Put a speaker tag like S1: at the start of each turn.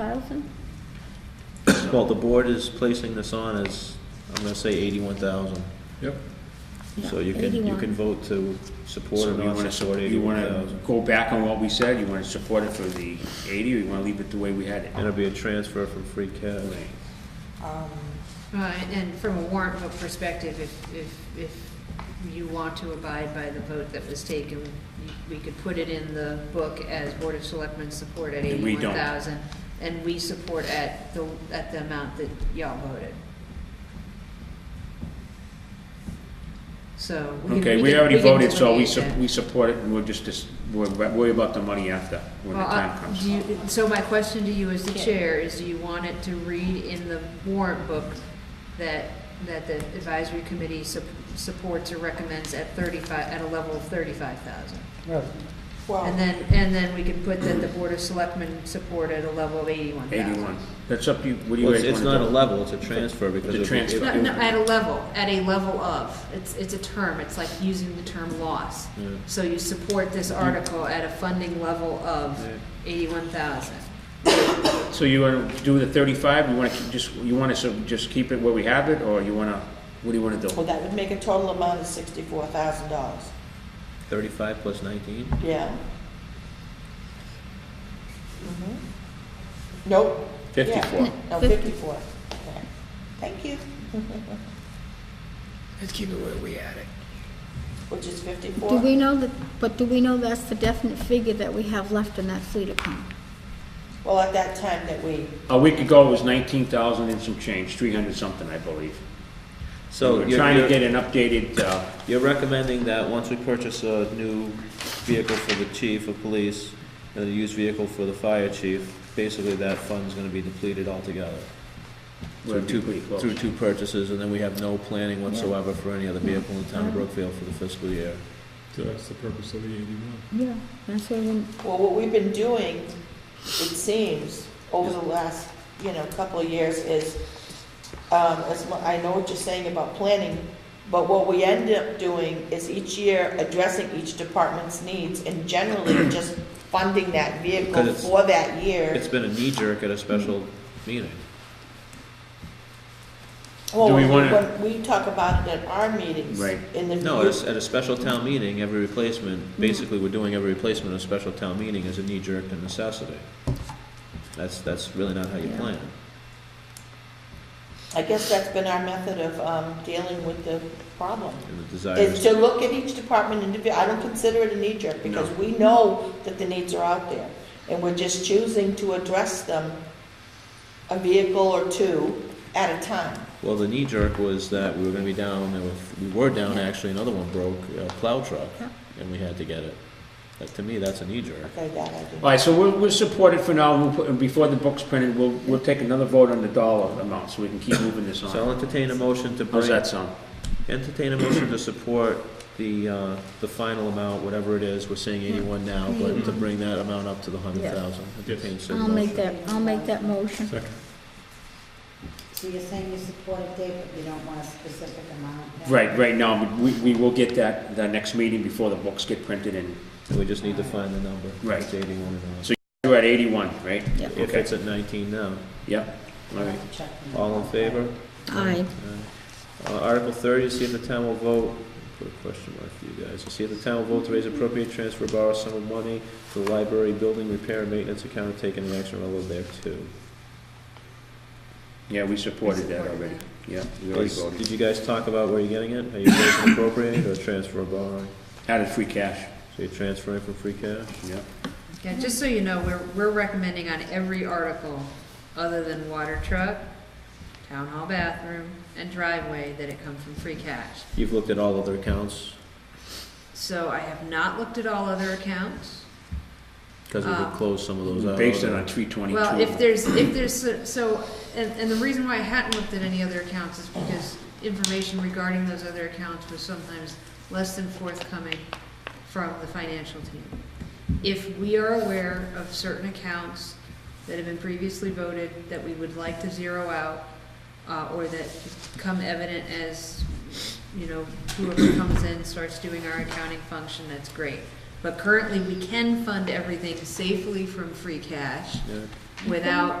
S1: thousand?
S2: Well, the board is placing this on as, I'm gonna say eighty-one thousand.
S3: Yep.
S2: So you can, you can vote to support
S3: So
S2: or
S3: you
S2: not
S3: wanna,
S2: support
S3: sup- you
S2: eighty-one
S3: wanna
S2: thousand.
S3: go back on what we said, you wanna support it for the eighty, or you wanna leave it the way we had it?
S2: And it'll be a transfer from free cash.
S3: Right.
S4: Uh, And from a warrant vote perspective, if, if, if you want to abide by the vote that was taken, we could put it in the book as Board of Selectmen support at
S3: And we don't.
S4: eighty-one thousand, and we support at the, at the amount that y'all voted. So. can-
S3: Okay, we
S4: can-
S3: already
S4: can
S3: voted, so we,
S4: delineate
S3: sup-
S4: that.
S3: we support it, and we'll just, dis- we'll worry about the money after, when the
S4: Well,
S3: time
S4: uh,
S3: comes.
S4: do you, so my question to you as the chair is, do you want it to read in the warrant book that, that the advisory committee sup- supports or recommends at thirty-five, at a level of thirty-five thousand? And
S5: Well,
S4: then, and then we can put that the board of selectmen support at a level of eighty-one thousand?
S3: Eighty-one, that's up to you, what do you
S2: Well,
S3: guys
S2: it's,
S3: wanna do?
S2: it's not a level, it's a transfer because.
S3: It's a
S2: it'll be-
S3: transfer.
S4: No, no, at a level, at a level of, it's, it's a term, it's like using the term loss.
S2: Yeah.
S4: So you support this article at a funding level of eighty-one thousand.
S3: So you wanna do the thirty-five, you wanna keep- just, you wanna sub- just keep it where we have it, or you wanna, what do you wanna
S5: well,
S3: do?
S5: that would make a total amount of sixty-four thousand dollars.
S2: Thirty-five plus nineteen?
S5: Yeah. Mhm. Mm-hmm. Nope. Yeah.
S3: Fifty-four.
S5: No, fifty-four. Yeah. Thank you,
S3: Let's keep it where we had it.
S5: which is
S1: Do we
S5: fifty-four.
S1: know that, but do we know that's the definite figure that we have left in that fleet account?
S5: Well, at that time that we,
S3: A week ago, it was nineteen thousand and some change, three hundred something, I believe.
S2: So
S3: We're
S2: you're-
S3: trying to
S2: you're-
S3: get an updated, uh,
S2: You're recommending that once we purchase a new vehicle for the chief of police and a used vehicle for the fire chief, basically that fund's gonna be depleted altogether.
S3: We're
S2: Through two,
S3: pretty close.
S2: through two purchases, and then we have no planning whatsoever for any other vehicle in the town of Brookfield for the fiscal year.
S6: So that's the purpose of the eighty-one.
S1: Yeah. That's what we,
S5: well, what we've been doing, it seems, over the last, you know, couple of years is, um, as, mu- I know what you're saying about planning, but what we end up doing is each year addressing each department's needs and generally just funding that vehicle
S2: Because it's-
S5: for that year.
S2: It's been a knee jerk at a special meeting.
S5: Well,
S3: Do we
S5: when-
S3: wanna-
S5: when we talk about it at our meetings.
S3: Right.
S5: In the.
S2: No, at a, s- at a special town meeting, every replacement, basically we're doing every replacement at a special town meeting is a knee jerk and necessity. That's, that's really not how you
S1: Yeah.
S2: plan.
S5: I guess that's been our method of, um, dealing with the problem.
S2: And the desire
S5: Is
S2: is-
S5: to look at each department individually. I don't consider it a knee jerk because we know that the needs are out there. And we're just choosing to address them a vehicle or two at a time.
S2: Well, the knee jerk was that we were gonna be down, and if- we were down, actually, another one broke, a plow truck, and we had to get it. That, to me, that's a knee jerk.
S5: Okay, that I do.
S3: All right, so we'll, we'll support it for now, and we'll put, and before the book's printed, we'll, we'll take another vote on the dollar amount, so we can keep moving this
S2: So I'll
S3: on.
S2: entertain a motion to bring.
S3: How's that sound?
S2: Entertain a motion to support the, uh, the final amount, whatever it is, we're saying eighty-one now, but to bring that amount up to the hundred thousand. Entertain said
S1: I'll make
S2: motion.
S1: that, I'll make that motion.
S6: Second.
S7: So you're saying you support a date, but you don't want a specific amount?
S3: Right, right now, we, we will get that, the next meeting before the books get printed, and
S2: We just need to find the number.
S3: Right.
S2: It's eighty-one and all.
S3: So- we're at eighty-one, right?
S1: Yeah.
S2: If it's at nineteen now,
S3: Yep, all right.
S2: all in favor?
S1: Aye.
S2: Uh, Article thirty, to see if the town will vote, put a question mark for you guys, to see if the town will vote to raise appropriate transfer or borrow sum of money for the library building repair and maintenance account and take any action relative thereto.
S3: Yeah, we supported that already, yeah, we already
S2: Is-
S3: voted.
S2: Did you guys talk about where you're getting it? Are you raising appropriate or transfer or borrowing?
S3: Out of free cash,
S2: So you're transferring from free cash?
S3: yeah.
S4: Yeah, just so you know, we're, we're recommending on every article, other than water truck, town hall bathroom, and driveway, that it come from free cash.
S2: You've looked at all other accounts,
S4: So I have not looked at all other accounts.
S2: because we could
S4: Uh,
S2: close some of those out.
S3: Based it on three twenty-two.
S4: Well, if there's, if there's, so, and, and the reason why I hadn't looked at any other accounts is because information regarding those other accounts was sometimes less than forthcoming from the financial team. If we are aware of certain accounts that have been previously voted that we would like to zero out, uh, or that come evident as, you know, whoever comes in starts doing our accounting function, that's great. But currently, we can fund everything safely from free cash
S2: Yeah.
S4: without